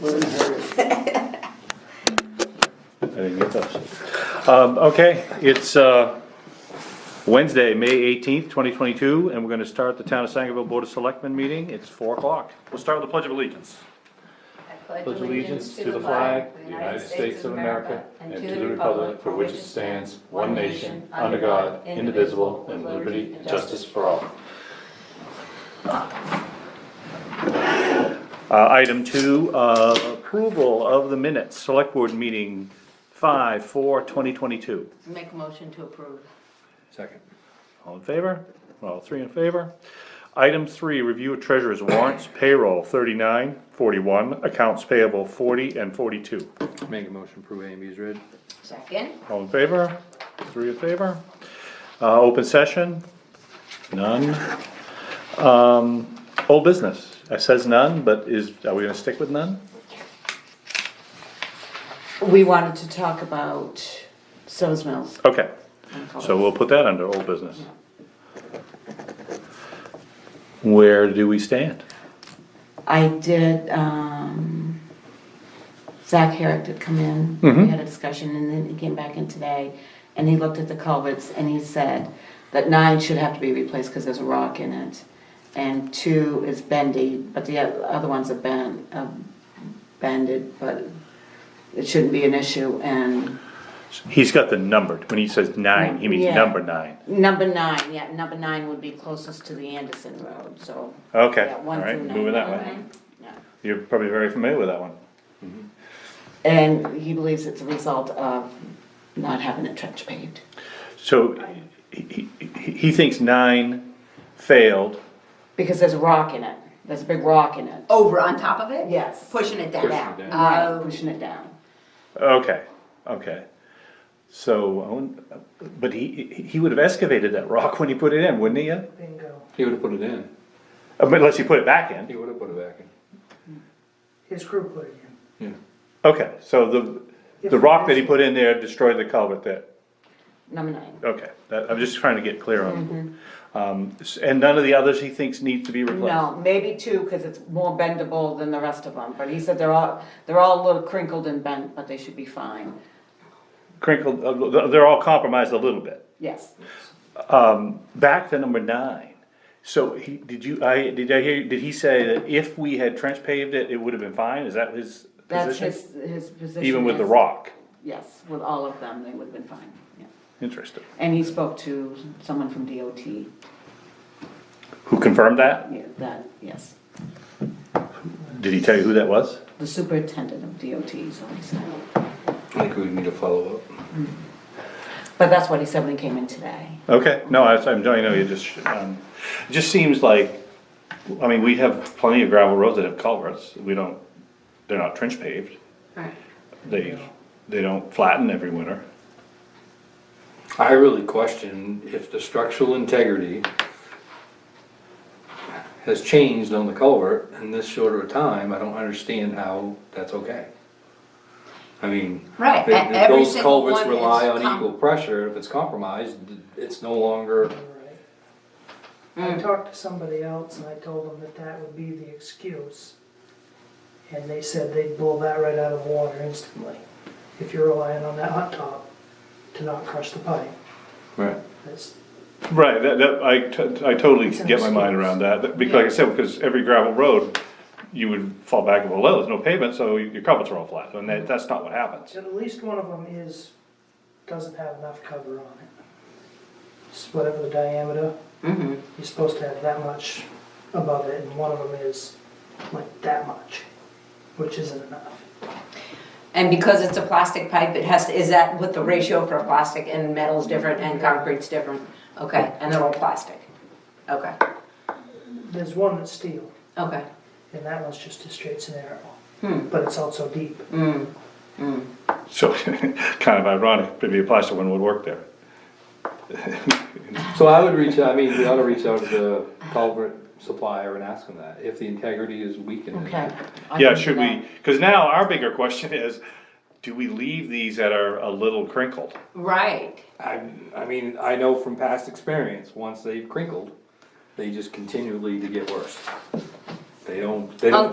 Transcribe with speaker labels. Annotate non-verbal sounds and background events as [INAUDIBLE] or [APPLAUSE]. Speaker 1: We're in a hurry.
Speaker 2: I didn't get those. Um, okay, it's, uh, Wednesday, May eighteenth, twenty twenty-two, and we're gonna start the Town of Sangerville Board of Selectmen meeting. It's four o'clock. We'll start with the Pledge of Allegiance.
Speaker 3: I pledge
Speaker 4: pledge allegiance to the flag of the United States of America and to the republic for which it stands, one nation, under God, indivisible, and liberty and justice for all.
Speaker 2: Uh, item two, uh, approval of the minutes, Select Board meeting five, four, twenty twenty-two.
Speaker 3: Make a motion to approve.
Speaker 5: Second.
Speaker 2: All in favor? All three in favor? Item three, review of treasurer's warrants, payroll thirty-nine, forty-one, accounts payable forty and forty-two.
Speaker 5: Make a motion, approve A and B as read.
Speaker 3: Second,
Speaker 2: All in favor? Three in favor? Uh, open session? None. Um, old business, it says none, but is, are we gonna stick with none?
Speaker 6: We wanted to talk about Sills Mills.
Speaker 2: Okay,
Speaker 6: and
Speaker 2: so we'll put that under old business. Where do we stand?
Speaker 6: I did, um, Zach Herrick did come in,
Speaker 2: Mm-hmm.
Speaker 6: we had a discussion, and then he came back in today, and he looked at the culverts, and he said that nine should have to be replaced because there's a rock in it, and two is bendy, but the oth- other ones are bent, uh, bended, but it shouldn't be an issue, and
Speaker 2: He's got the numbered, when he says nine, he means
Speaker 6: Yeah.
Speaker 2: number nine.
Speaker 6: number nine, yeah, number nine would be closest to the Anderson Road, so.
Speaker 2: Okay,
Speaker 6: yeah,
Speaker 2: all
Speaker 6: one
Speaker 2: right,
Speaker 6: through
Speaker 2: moving that
Speaker 6: nine. Mm-hmm.
Speaker 2: way.
Speaker 6: Yeah.
Speaker 2: You're probably very familiar with that one.
Speaker 6: And he believes it's a result of not having it trench paved.
Speaker 2: So he, he, he- he thinks nine failed.
Speaker 6: Because there's a rock in it. There's a big rock in it.
Speaker 3: over on top of it?
Speaker 6: Yes.
Speaker 3: Pushing it
Speaker 6: Pushing
Speaker 3: down.
Speaker 6: it
Speaker 5: down.
Speaker 6: Right,
Speaker 3: Oh,
Speaker 6: pushing it down.
Speaker 2: Okay, okay. So, I wouldn't- but he, he- he would have excavated that rock when he put it in, wouldn't he? Uh,
Speaker 7: Bingo.
Speaker 5: He would've put it in.
Speaker 2: Unless he put it back
Speaker 5: He
Speaker 2: in.
Speaker 5: would've put it back in.
Speaker 7: His crew put it in.
Speaker 2: Okay, so the, the rock that he put in there destroyed the culvert there.
Speaker 6: Number nine.
Speaker 2: Okay, that, I'm just trying to get clear on. Um, s- and none of the others he thinks need to be replaced?
Speaker 6: Mm-hmm. No, maybe two, because it's more bendable than the rest of them. But he said they're all, they're all a little crinkled and bent, but they should be fine.
Speaker 2: Crinkled, uh, th- they're all compromised a little bit.
Speaker 6: Yes.
Speaker 2: Back to number nine. So he, did you, I, did I hear, did he say that if we had trench paved it, it would have been fine? Is that his
Speaker 6: That's
Speaker 2: position?
Speaker 6: his, his position.
Speaker 2: Even with the
Speaker 6: is-
Speaker 2: rock?
Speaker 6: Yes, with all of them, they would have been fine. Yeah.
Speaker 2: Interesting.
Speaker 6: And he spoke to someone from DOT,
Speaker 2: Who confirmed that?
Speaker 6: yeah, that, yes.
Speaker 2: Did he tell you who that was?
Speaker 6: The superintendent of DOT, so he said.
Speaker 5: I think we need a follow-up.
Speaker 6: But that's what he said when he came in today.
Speaker 2: Okay, no, I was, I'm, I know you just, um, it just seems like, I mean, we have plenty of gravel roads that have culverts. We don't, they're not trench paved.
Speaker 6: Right.
Speaker 2: They, they don't flatten every winter.
Speaker 5: I really question if the structural integrity has changed on the culvert in this shorter a time, I don't understand how that's okay. I mean.
Speaker 3: Right,
Speaker 5: th-
Speaker 3: and
Speaker 5: th-
Speaker 3: every
Speaker 5: Those
Speaker 3: single
Speaker 5: culverts
Speaker 3: one
Speaker 5: rely
Speaker 3: is
Speaker 5: on
Speaker 3: com-
Speaker 5: equal pressure, if it's compromised, it's no longer,
Speaker 7: I talked to somebody else and I told them that that would be the excuse. And they said they'd blow that right out of the water instantly, if you're relying on that hot top to not crush the pipe.
Speaker 5: right,
Speaker 7: That's,
Speaker 2: Right, that, that, I, t- I totally
Speaker 7: It's an
Speaker 2: get my mind
Speaker 7: excuse.
Speaker 2: around that, that- because like I said, because every gravel road, you would fall back and go, well, there's no pavement, so your culverts are all flat, and that, that's not what happens.
Speaker 7: so at least one of them is, doesn't have enough cover on it. It's whatever the diameter,
Speaker 3: mhm.
Speaker 7: you're supposed to have that much above it, and one of them is like that much, which isn't enough.
Speaker 3: And because it's a plastic pipe, it has to, is that what the ratio for plastic and metal's different and concrete's different? Okay, and they're all plastic? Okay,
Speaker 7: There's one that's steel.
Speaker 3: okay.
Speaker 7: And that one's just a straight scenario.
Speaker 3: Hmm.
Speaker 7: But it's also deep.
Speaker 3: Mm.
Speaker 2: So, [LAUGHS] kind of ironic, maybe a plastic one would work there.
Speaker 5: so I would reach, out. I mean, we ought to reach out to the culvert supplier and ask them that, if the integrity is weakened.
Speaker 6: Okay. I
Speaker 2: Yeah,
Speaker 6: can do
Speaker 2: should
Speaker 6: that.
Speaker 2: we, cause now our bigger question is, do we leave these that are a little crinkled?
Speaker 3: Right,
Speaker 5: I, I mean, I know from past experience, once they've crinkled, they just continually to get worse. They don't, they
Speaker 3: Um,
Speaker 5: don't